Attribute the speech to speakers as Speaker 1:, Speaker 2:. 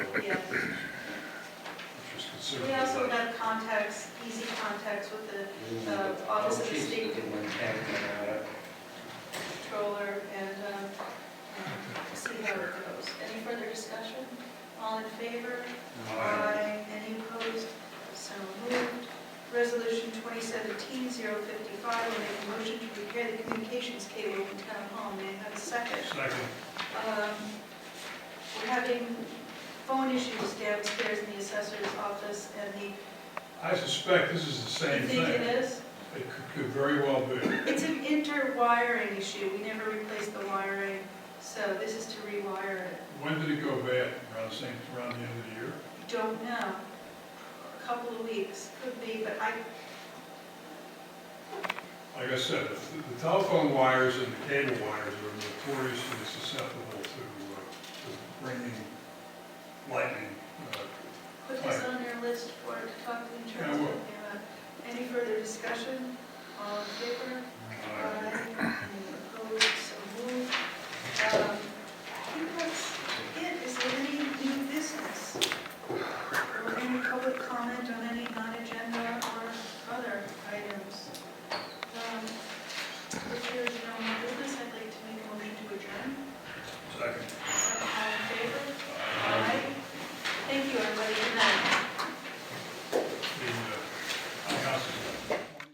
Speaker 1: contacts, easy contacts with the Uh, Office of the State- controller and um, um, see how it goes. Any further discussion? All in favor? Aye. Any opposed? So moved. Resolution 2017-055, I make a motion to repair the communications cable in Town Hall. May I have a second?
Speaker 2: Second.
Speaker 1: Um, We're having phone issues downstairs in the assessor's office and the,
Speaker 2: I suspect this is the same
Speaker 1: you think it
Speaker 2: thing. It
Speaker 1: is?
Speaker 2: could- could very well be.
Speaker 1: It's an interwiring issue. We never replaced the wiring, so this is to rewire it.
Speaker 2: When did it go bad? Around the same, around the end of the year?
Speaker 1: Don't know. A couple of weeks, could be, but I,
Speaker 2: Like I said, the the telephone wires and the cable wires are notoriously susceptible to uh, to bringing lightning. uh,
Speaker 1: put this on your list for, to talk to the
Speaker 2: I
Speaker 1: insurance
Speaker 2: will.
Speaker 1: company about. Any further discussion? All in favor? Uh,
Speaker 2: uh,